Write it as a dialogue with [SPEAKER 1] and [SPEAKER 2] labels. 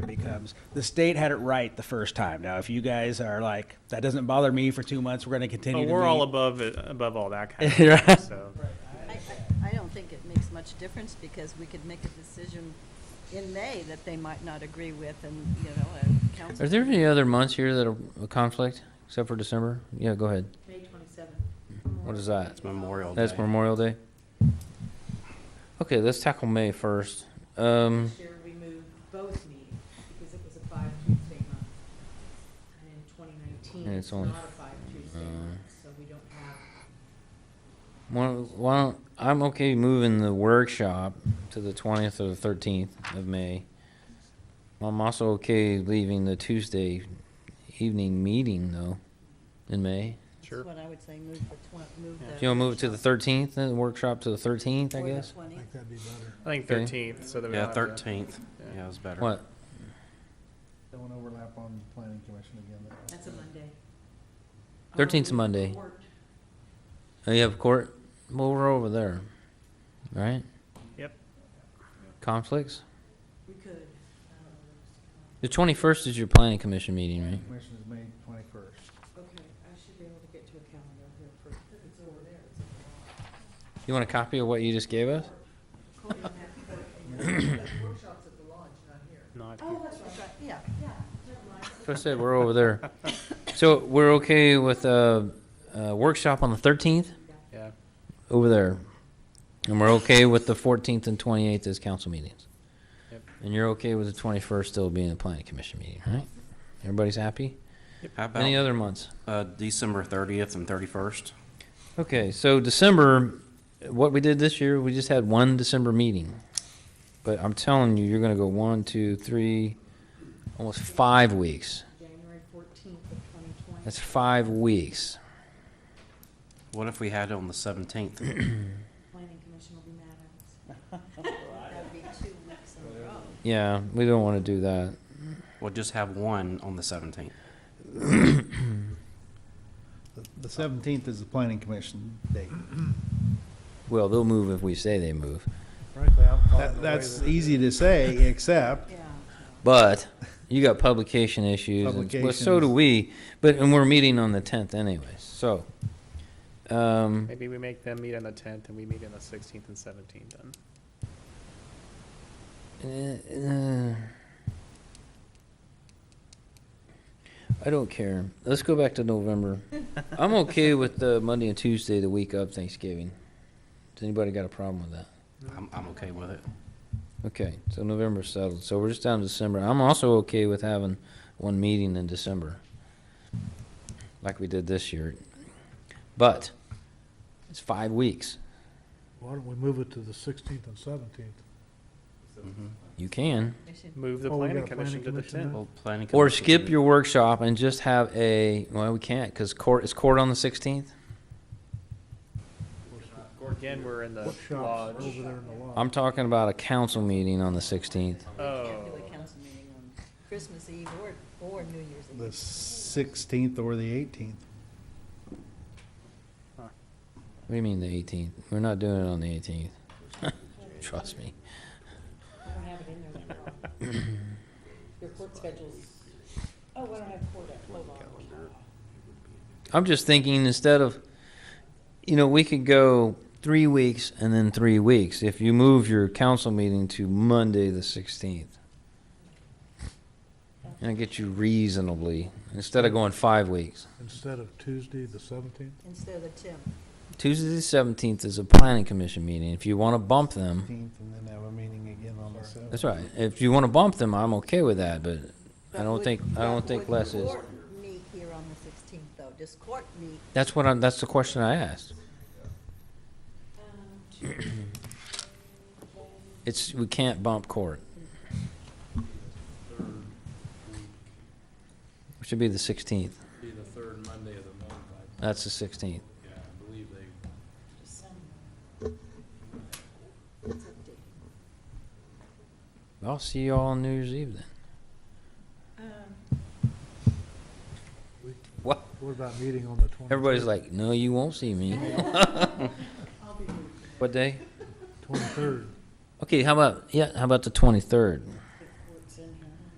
[SPEAKER 1] times. The state had it right the first time. Now, if you guys are like, that doesn't bother me for two months, we're going to
[SPEAKER 2] But
[SPEAKER 1] continue. to
[SPEAKER 2] we're all
[SPEAKER 1] meet."
[SPEAKER 2] above, it- above all that kind of
[SPEAKER 1] Right.
[SPEAKER 2] stuff, so.
[SPEAKER 3] I, I- I don't think it makes much difference because we could make a decision in May that they might not agree with and, you know, and council.
[SPEAKER 4] Are there any other months here that are a conflict except for December? Yeah, go ahead.
[SPEAKER 5] May twenty-seventh.
[SPEAKER 4] What is that?
[SPEAKER 6] Memorial
[SPEAKER 4] That's Memorial Day. Okay, let's tackle May first. Um,
[SPEAKER 5] This year, we moved both meetings because it was a five Tuesday month. And in twenty nineteen,
[SPEAKER 4] And
[SPEAKER 5] it's
[SPEAKER 4] it's
[SPEAKER 5] not
[SPEAKER 4] only- uh,
[SPEAKER 5] a five Tuesday month, so we don't have.
[SPEAKER 4] why don't- why don't, I'm okay moving the workshop to the twentieth or the thirteenth of May. I'm also okay leaving the Tuesday evening meeting though, in May.
[SPEAKER 3] That's what I would say, move the twen, move the.
[SPEAKER 4] If you wanna move it to the thirteenth, then the workshop to the thirteenth, I
[SPEAKER 3] or the
[SPEAKER 4] guess?
[SPEAKER 3] 20th.
[SPEAKER 2] I think
[SPEAKER 4] Okay.
[SPEAKER 2] thirteenth, so that we
[SPEAKER 6] Yeah,
[SPEAKER 2] don't have to-
[SPEAKER 6] thirteenth. Yeah, it's better.
[SPEAKER 4] What?
[SPEAKER 7] Don't overlap on the planning commission again.
[SPEAKER 5] That's a Monday.
[SPEAKER 4] 13th's a
[SPEAKER 5] Um,
[SPEAKER 4] Monday.
[SPEAKER 5] court,
[SPEAKER 4] Oh, you have court? Well, we're over there, right?
[SPEAKER 2] Yep.
[SPEAKER 4] Conflicts?
[SPEAKER 5] We could. um,
[SPEAKER 4] The twenty-first is your planning commission meeting, right?
[SPEAKER 7] Commission is May twenty-first.
[SPEAKER 5] um, Okay, I should be able to get to a calendar here for, it's over there. it's over there.
[SPEAKER 4] You want a copy of what you just gave us?
[SPEAKER 5] Court don't have court. That Workshops at the lodge, not here.
[SPEAKER 2] Not
[SPEAKER 5] Oh, that's right, yeah, yeah, never mind.
[SPEAKER 4] So I said we're over there. So we're okay with a, uh workshop on the thirteenth
[SPEAKER 2] Yeah,
[SPEAKER 4] over there, and we're okay with the fourteenth and twenty-eighth as council meetings.
[SPEAKER 2] Yep.
[SPEAKER 4] And you're okay with the twenty-first still being a planning commission meeting, right? Everybody's happy?
[SPEAKER 6] How
[SPEAKER 4] Any
[SPEAKER 6] about
[SPEAKER 4] other months?
[SPEAKER 6] uh, December thirtieth and thirty-first?
[SPEAKER 4] Okay, so December, what we did this year, we just had one December meeting. But I'm telling you, you're gonna go one, two, three, almost five weeks.
[SPEAKER 5] January fourteenth of twenty twenty.
[SPEAKER 4] That's five weeks.
[SPEAKER 6] What if we had it on the seventeenth?
[SPEAKER 5] Planning Commission will be mad at us.
[SPEAKER 3] That'd be two weeks in a row.
[SPEAKER 4] Yeah, we don't wanna do that.
[SPEAKER 6] We'll just have one on the seventeenth.
[SPEAKER 7] The seventeenth is the planning commission date.
[SPEAKER 4] Well, they'll move if we say they move.
[SPEAKER 7] That- That's easy to say, except
[SPEAKER 5] Yeah.
[SPEAKER 4] But you got publication issues. and- Well, so do
[SPEAKER 7] Publications.
[SPEAKER 4] we, but, and we're meeting on the tenth anyways, so. Um,
[SPEAKER 2] maybe we make them meet on the tenth and we meet on the sixteenth and seventeenth then.
[SPEAKER 4] Uh, uh, I don't care. Let's go back to November. I'm okay with the Monday and Tuesday, the week of Thanksgiving. Does anybody got a problem with that?
[SPEAKER 6] I'm, I'm okay with it.
[SPEAKER 4] Okay, so November's settled. So we're just down to December. I'm also okay with having one meeting in December, like we did this year. But it's five weeks.
[SPEAKER 8] Why don't we move it to the 16th and 17th?
[SPEAKER 4] You can.
[SPEAKER 3] They should-
[SPEAKER 2] Move the
[SPEAKER 8] Oh, we got
[SPEAKER 2] planning
[SPEAKER 8] a
[SPEAKER 2] commission
[SPEAKER 8] planning
[SPEAKER 2] to the
[SPEAKER 8] commission
[SPEAKER 2] tenth.
[SPEAKER 8] then?
[SPEAKER 6] Well, planning.
[SPEAKER 4] Or
[SPEAKER 6] commission-
[SPEAKER 4] skip your workshop and just have a, well, we can't, because court, is court on the 16th?
[SPEAKER 2] Again, we're in the
[SPEAKER 8] Workshops
[SPEAKER 2] lodge.
[SPEAKER 8] over there in the lodge.
[SPEAKER 4] I'm talking about a council meeting on the 16th.
[SPEAKER 3] Can't do
[SPEAKER 2] Oh,
[SPEAKER 3] a council meeting on Christmas Eve or, or New Year's Eve.
[SPEAKER 7] the sixteenth or the eighteenth.
[SPEAKER 4] What do you mean the 18th? We're not doing it on the 18th. Trust me.
[SPEAKER 5] I don't have it in there that long. Your court schedule's, oh, I don't have court up, hold on.
[SPEAKER 4] I'm just thinking instead of, you know, we could go three weeks and then three weeks if you move your council meeting to Monday, the 16th. And it gets you reasonably, instead of going five weeks.
[SPEAKER 8] Instead of Tuesday, the 17th?
[SPEAKER 3] Instead of the tenth.
[SPEAKER 4] Tuesday, the 17th is a planning commission meeting. If you want to bump them,
[SPEAKER 7] Eighteenth, and then have a meeting again on the
[SPEAKER 4] That's
[SPEAKER 7] seventeenth.
[SPEAKER 4] right. If you want to bump them, I'm okay with that, but I
[SPEAKER 3] But
[SPEAKER 4] don't
[SPEAKER 3] would-
[SPEAKER 4] think, I
[SPEAKER 3] but
[SPEAKER 4] don't think
[SPEAKER 3] would
[SPEAKER 4] less is.
[SPEAKER 3] court Meet here on the sixteenth though. Does court meet?
[SPEAKER 4] That's what I'm, that's the question I asked. It's, we can't bump court. It should be the sixteenth.
[SPEAKER 9] Be the third Monday of the month, I,
[SPEAKER 4] That's the sixteenth.
[SPEAKER 9] yeah, I believe they
[SPEAKER 4] I'll see you all on New Year's Eve then. What?
[SPEAKER 8] What about meeting on the 23rd?
[SPEAKER 4] Everybody's like, no, you won't see me. What day?
[SPEAKER 8] 23rd.
[SPEAKER 4] Okay, how about, yeah, how about the twenty-third?